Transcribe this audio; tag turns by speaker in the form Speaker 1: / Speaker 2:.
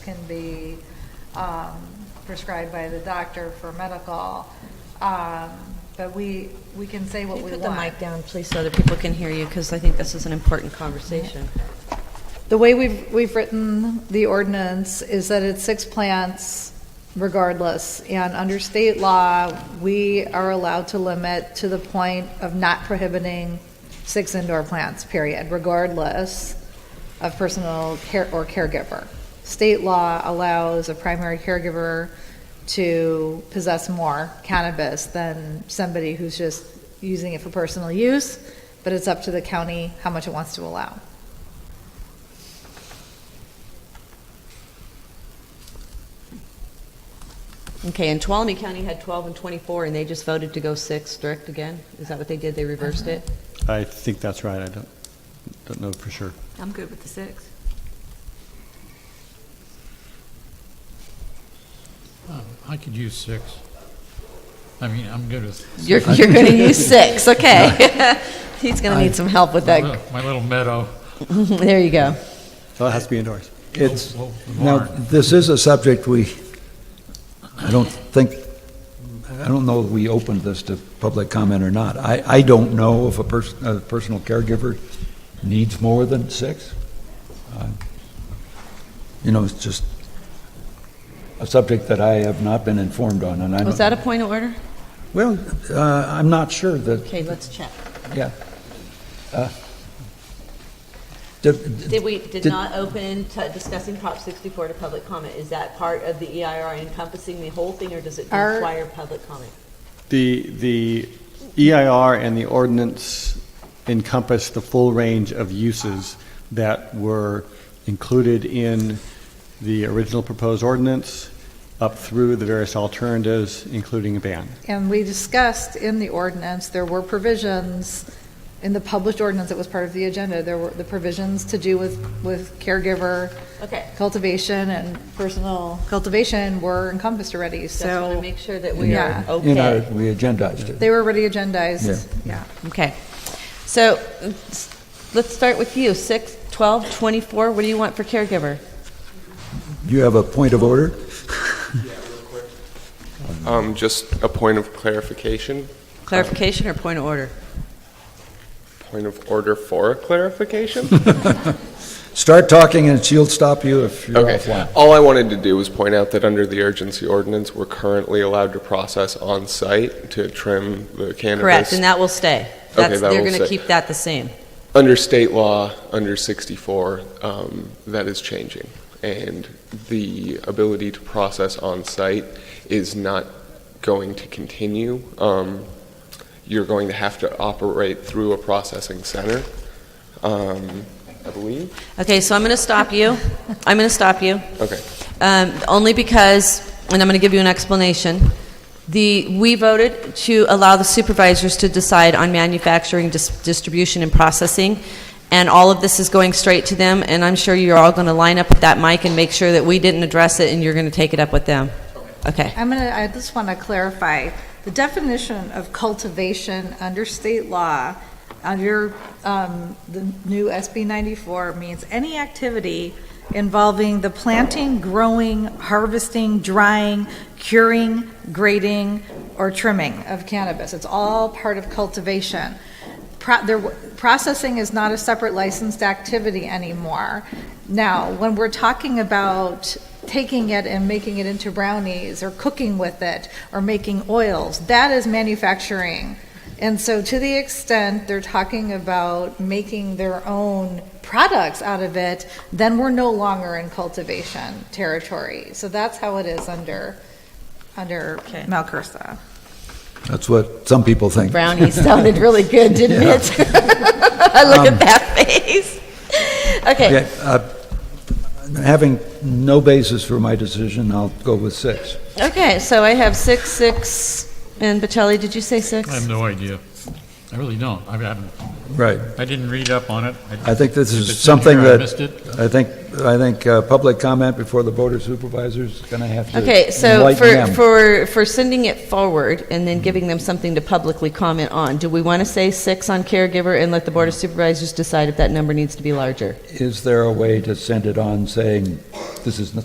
Speaker 1: can be um, prescribed by the doctor for medical, um, but we, we can say what
Speaker 2: Can you
Speaker 1: we
Speaker 2: put the
Speaker 1: want.
Speaker 2: mic down, please, so other people can hear you? Because I think this is an important conversation.
Speaker 1: The way we've, we've written the ordinance is that it's six plants regardless, and under state law, we are allowed to limit to the point of not prohibiting six indoor plants, period, regardless of personal care or caregiver. State law allows a primary caregiver to possess more cannabis than somebody who's just using it for personal use, but it's up to the county how much it wants to allow.
Speaker 2: Okay, and Tuolumne County had 12 and 24, and they just voted to go six direct again? Is that what they did? They reversed it?
Speaker 3: I think that's right. I don't, don't know for sure.
Speaker 4: I'm good with the six.
Speaker 5: Um, I could use six. I mean, I'm good with.
Speaker 2: You're, you're going to use six, okay. He's going to need some help with
Speaker 5: My
Speaker 2: that.
Speaker 5: little- My little meadow.
Speaker 2: There you go.
Speaker 3: So it has to be indoors.
Speaker 6: It's,
Speaker 5: Well, the
Speaker 6: now,
Speaker 5: barn.
Speaker 6: this is a subject we, I don't think, I don't know if we opened this to public comment or not. I, I don't know if a person, a personal caregiver needs more than six. Uh, You know, it's just a subject that I have not been informed on, and I'm.
Speaker 2: Was that a point of order?
Speaker 6: Well, uh, I'm not sure that,
Speaker 2: Okay, let's check.
Speaker 6: yeah. Uh, did-
Speaker 2: Did we, did
Speaker 6: Did-
Speaker 2: not open to discussing Prop 64 to public comment? Is that part of the EIR encompassing the whole thing, or does it
Speaker 1: Our-
Speaker 2: require public comment?
Speaker 3: The, the EIR and the ordinance encompass the full range of uses that were included in the original proposed ordinance up through the various alternatives, including a ban.
Speaker 1: And we discussed in the ordinance, there were provisions, in the published ordinance that was part of the agenda, there were the provisions to do with, with caregiver
Speaker 2: Okay.
Speaker 1: cultivation and personal cultivation were encompassed already,
Speaker 2: Just want to
Speaker 1: so
Speaker 2: make sure that we
Speaker 1: Yeah.
Speaker 2: are okay.
Speaker 6: In our, we agendized it.
Speaker 1: they were already agendized, yeah.
Speaker 2: Okay. So s- let's start with you. 6, 12, 24, what do you want for caregiver?
Speaker 6: You have a point of order?
Speaker 7: Um, just a point of clarification,
Speaker 2: Clarification or point of order?
Speaker 7: point of order for clarification?
Speaker 6: Start talking and she'll stop you if you're
Speaker 7: Okay.
Speaker 6: offline.
Speaker 7: All I wanted to do was point out that under the urgency ordinance, we're currently allowed to process on-site to trim the
Speaker 2: Correct,
Speaker 7: cannabis.
Speaker 2: and that will stay.
Speaker 7: Okay,
Speaker 2: That's-
Speaker 7: that
Speaker 2: They're
Speaker 7: will
Speaker 2: going to
Speaker 7: stay.
Speaker 2: keep that the same.
Speaker 7: Under state law, under 64, um, that is changing. And the ability to process on-site is not going to continue. Um, You're going to have to operate through a processing center, um, I believe.
Speaker 2: Okay, so I'm going to stop you. I'm going to stop you.
Speaker 7: Okay.
Speaker 2: Um, Only because, and I'm going to give you an explanation. The, we voted to allow the supervisors to decide on manufacturing, dis- distribution, and processing, and all of this is going straight to them, and I'm sure you're all going to line up with that mic and make sure that we didn't address it, and you're going to take it up with them. Okay.
Speaker 1: I'm gonna, I just wanna clarify, the definition of cultivation under state law, under, um, the new SB ninety-four means any activity involving the planting, growing, harvesting, drying, curing, grading, or trimming of cannabis. It's all part of cultivation. Pro- there, w- processing is not a separate licensed activity anymore. Now, when we're talking about taking it and making it into brownies or cooking with it or making oils, that is manufacturing. And so, to the extent they're talking about making their own products out of it, then we're no longer in cultivation territory. So that's how it is under under
Speaker 2: Okay.
Speaker 1: Malcursa.
Speaker 6: That's what some people think.
Speaker 2: Brownie sounded really good, didn't
Speaker 6: Yeah.
Speaker 2: it? Look
Speaker 6: Um,
Speaker 2: at that face. Okay,
Speaker 6: Okay, uh, Having no basis for my decision, I'll go with six.
Speaker 2: okay, so I have six, six, and Bocelli, did you say six?
Speaker 5: I have no idea. I really don't. I haven't,
Speaker 6: Right.
Speaker 5: I didn't read up on it.
Speaker 6: I think this
Speaker 5: If
Speaker 6: is
Speaker 5: it's in
Speaker 6: something
Speaker 5: here, I
Speaker 6: that,
Speaker 5: missed it.
Speaker 6: I think, I think uh, public comment before the board of supervisors is going to have to
Speaker 2: Okay, so
Speaker 6: enlighten
Speaker 2: for, for,
Speaker 6: them.
Speaker 2: for sending it forward and then giving them something to publicly comment on, do we want to say six on caregiver and let the Board of Supervisors decide if that number needs to be larger?
Speaker 6: Is there a way to send it on saying, this is